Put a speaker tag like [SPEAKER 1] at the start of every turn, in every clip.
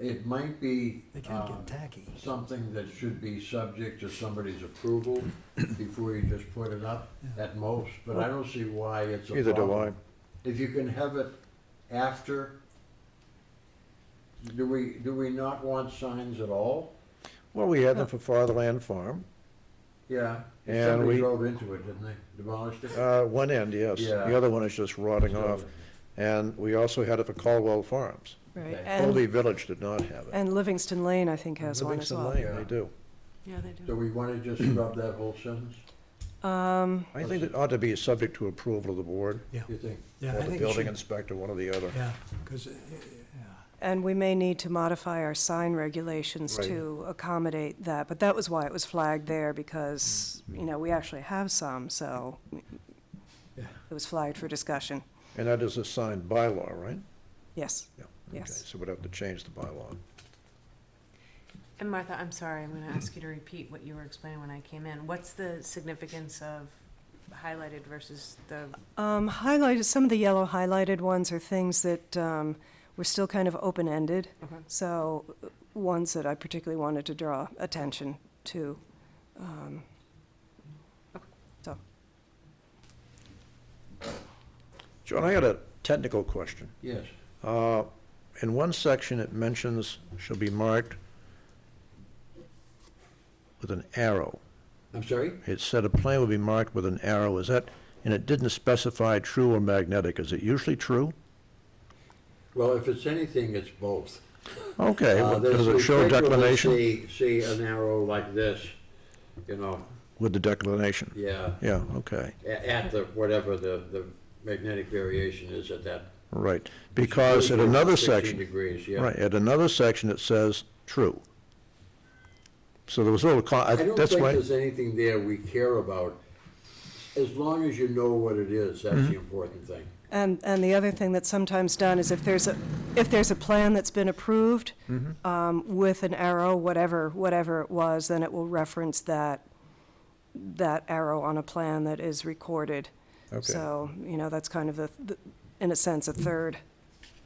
[SPEAKER 1] it might be
[SPEAKER 2] They kind
[SPEAKER 1] um,
[SPEAKER 2] of get tacky.
[SPEAKER 1] something that should be subject to somebody's approval before you just put it up at most, but I don't see why it's a
[SPEAKER 3] Neither do I.
[SPEAKER 1] problem. If you can have it after, do we, do we not want signs at all?
[SPEAKER 3] Well, we had them for Fatherland Farm,
[SPEAKER 1] Yeah,
[SPEAKER 3] And
[SPEAKER 1] somebody
[SPEAKER 3] we-
[SPEAKER 1] drove into it, didn't they? Demolished it?
[SPEAKER 3] uh, one end, yes.
[SPEAKER 1] Yeah.
[SPEAKER 3] The other one is just rotting off. And we also had it for Caldwell Farms.
[SPEAKER 4] Right,
[SPEAKER 1] Okay.
[SPEAKER 3] Holy
[SPEAKER 4] and,
[SPEAKER 3] Village did not have it.
[SPEAKER 4] and Livingston Lane, I think, has one as
[SPEAKER 3] Livingston
[SPEAKER 4] well.
[SPEAKER 3] Lane,
[SPEAKER 1] Yeah.
[SPEAKER 3] they do.
[SPEAKER 4] Yeah, they
[SPEAKER 1] Do we wanna just scrub that whole sentence,
[SPEAKER 4] Um,
[SPEAKER 3] I think it ought to be subject to approval of the board,
[SPEAKER 1] you think?
[SPEAKER 2] Yeah,
[SPEAKER 3] or
[SPEAKER 2] I
[SPEAKER 3] the
[SPEAKER 2] think it
[SPEAKER 3] building
[SPEAKER 2] should,
[SPEAKER 3] inspector, one or the other.
[SPEAKER 2] yeah, because, yeah,
[SPEAKER 4] and we may need to modify our sign regulations
[SPEAKER 3] Right.
[SPEAKER 4] to accommodate that, but that was why it was flagged there, because, you know, we actually have some, so
[SPEAKER 2] Yeah.
[SPEAKER 4] it was flagged for discussion,
[SPEAKER 3] And that is a signed bylaw, right?
[SPEAKER 4] yes.
[SPEAKER 3] Yeah.
[SPEAKER 4] Yes.
[SPEAKER 3] Okay, So we'd have to change the bylaw.
[SPEAKER 5] And Martha, I'm sorry, I'm gonna ask you to repeat what you were explaining when I came in. What's the significance of highlighted versus the,
[SPEAKER 4] Um, highlighted, some of the yellow highlighted ones are things that, um, were still kind of open-ended,
[SPEAKER 5] okay,
[SPEAKER 4] so uh, ones that I particularly wanted to draw attention to.
[SPEAKER 3] John, I had a technical question.
[SPEAKER 1] Yes,
[SPEAKER 3] Uh, In one section, it mentions shall be marked with an arrow.
[SPEAKER 1] I'm sorry?
[SPEAKER 3] It said a plane will be marked with an arrow, is that, and it didn't specify true or magnetic, is it usually true?
[SPEAKER 1] Well, if it's anything, it's both.
[SPEAKER 3] Okay,
[SPEAKER 1] Uh,
[SPEAKER 3] well,
[SPEAKER 1] there's-
[SPEAKER 3] does
[SPEAKER 1] we
[SPEAKER 3] it show
[SPEAKER 1] frequently
[SPEAKER 3] declination?
[SPEAKER 1] See, see an arrow like this, you know,
[SPEAKER 3] With the declination,
[SPEAKER 1] yeah,
[SPEAKER 3] yeah, okay,
[SPEAKER 1] a- at the, whatever the, the magnetic variation is at that.
[SPEAKER 3] right, because at another
[SPEAKER 1] 16
[SPEAKER 3] section,
[SPEAKER 1] degrees, yeah.
[SPEAKER 3] right, at another section, it says true. So there was a little, con-
[SPEAKER 1] I
[SPEAKER 3] I-
[SPEAKER 1] don't think
[SPEAKER 3] that's why,
[SPEAKER 1] there's anything there we care about. As long as you know what it is,
[SPEAKER 3] Mm-hmm.
[SPEAKER 1] that's the important thing.
[SPEAKER 4] And, and the other thing that's sometimes done is if there's a, if there's a plan that's been approved um, with an arrow, whatever, whatever it was, then it will reference that, that arrow on a plan that is recorded.
[SPEAKER 3] okay,
[SPEAKER 4] So, you know, that's kind of the, the- in a sense, a third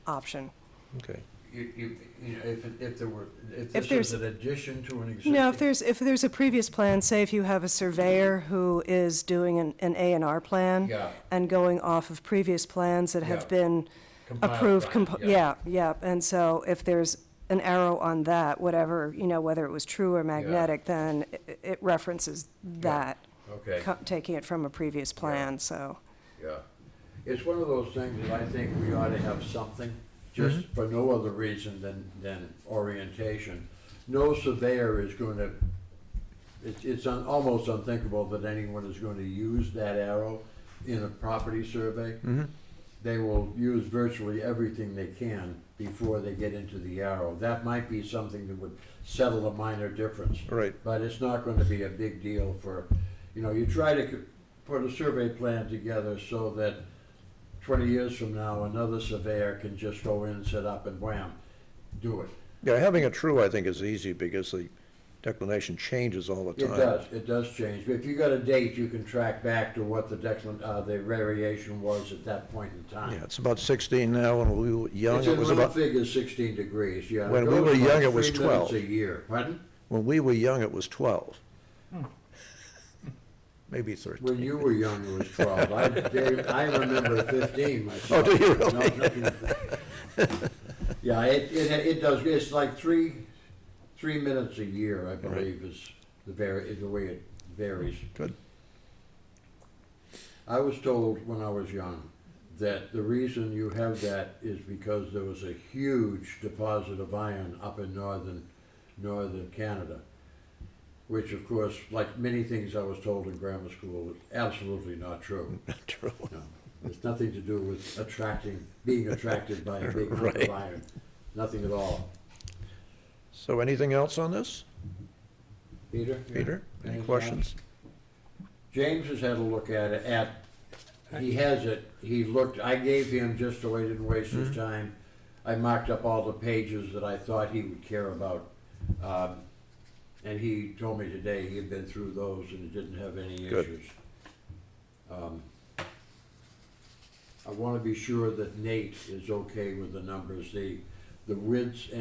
[SPEAKER 4] option.
[SPEAKER 3] okay,
[SPEAKER 1] You, you, you know, if, it- if there were, if
[SPEAKER 4] If
[SPEAKER 1] this is
[SPEAKER 4] there's-
[SPEAKER 1] an addition to an existing.
[SPEAKER 4] No, if there's, if there's a previous plan, say if you have a surveyor who is doing an, an A and R plan
[SPEAKER 1] Yeah.
[SPEAKER 4] and going off of previous plans that
[SPEAKER 1] Yeah.
[SPEAKER 4] have been
[SPEAKER 1] compiled
[SPEAKER 4] approved,
[SPEAKER 1] by-
[SPEAKER 4] compo- yeah, yeah, and so if there's an arrow on that, whatever, you know, whether it was true or magnetic, then i- it references that,
[SPEAKER 1] Okay.
[SPEAKER 4] co- taking it from a previous plan, so.
[SPEAKER 1] Yeah, it's one of those things that I think we ought to have something, just for no other reason than, than orientation. No surveyor is going to, it's, it's un- almost unthinkable that anyone is going to use that arrow in a property survey. They will use virtually everything they can before they get into the arrow. That might be something that would settle a minor difference
[SPEAKER 3] right,
[SPEAKER 1] but it's not going to be a big deal for, you know, you try to c- put a survey plan together so that twenty years from now, another surveyor can just go in, set up and wham, do it.
[SPEAKER 3] yeah, having it true, I think, is easy, because the declination changes all the
[SPEAKER 1] It
[SPEAKER 3] time.
[SPEAKER 1] does, it does change, but if you got a date, you can track back to what the declin, uh, the variation was at that point in
[SPEAKER 3] Yeah,
[SPEAKER 1] time.
[SPEAKER 3] it's about 16 now, when we were young,
[SPEAKER 1] It's
[SPEAKER 3] it
[SPEAKER 1] in
[SPEAKER 3] was
[SPEAKER 1] little
[SPEAKER 3] about,
[SPEAKER 1] figures, sixteen degrees, yeah.
[SPEAKER 3] When we
[SPEAKER 1] goes
[SPEAKER 3] were
[SPEAKER 1] like
[SPEAKER 3] young, it was
[SPEAKER 1] three minutes
[SPEAKER 3] 12.
[SPEAKER 1] A year, pardon?
[SPEAKER 3] when we were young, it was 12. Maybe 13.
[SPEAKER 1] When you were young, it was twelve. I, Dave, I remember fifteen myself.
[SPEAKER 3] Oh, do you
[SPEAKER 1] No, nothing- Yeah, it, it, it does, it's like three, three minutes a year, I believe, is the very, is the way it varies.
[SPEAKER 3] Good.
[SPEAKER 1] I was told when I was young that the reason you have that is because there was a huge deposit of iron up in northern, northern Canada. Which of course, like many things I was told in grammar school, is absolutely not true.
[SPEAKER 3] True.
[SPEAKER 1] No, It's nothing to do with attracting, being attracted by a big hunk of
[SPEAKER 3] Right.
[SPEAKER 1] iron, nothing at all.
[SPEAKER 3] So anything else on this?
[SPEAKER 1] Peter?
[SPEAKER 3] Peter, any
[SPEAKER 1] Anything
[SPEAKER 3] questions?
[SPEAKER 1] James has had a look at it, at, he has it, he looked, I gave him just so I didn't waste his time. I marked up all the pages that I thought he would care about. Um, and he told me today he had been through those and didn't have any
[SPEAKER 3] Good.
[SPEAKER 1] issues. Um, I wanna be sure that Nate is okay with the numbers, the, the widths